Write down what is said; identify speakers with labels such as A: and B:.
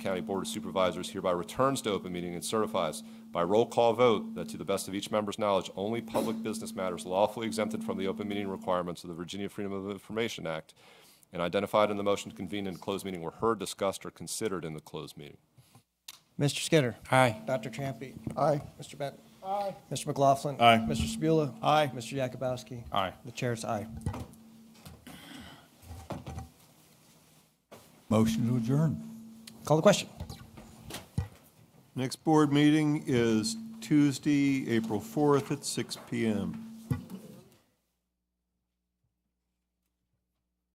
A: County Board of Supervisors hereby returns to open meeting and certifies by roll call vote that to the best of each member's knowledge, only public business matters lawfully exempted from the open meeting requirements of the Virginia Freedom of Information Act and identified in the motion to convene in closed meeting were heard, discussed, or considered in the closed meeting.
B: Mr. Skinner.
C: Aye.
B: Dr. Trampy. Aye. Mr. Benton. Aye. Mr. McLaughlin.
C: Aye.
B: Mr. Spula.
C: Aye.
B: Mr. Yakubowski.
C: Aye.
B: The chair's aye.
D: Motion to adjourn.
B: Call the question.
E: Next board meeting is Tuesday, April 4th at 6 PM.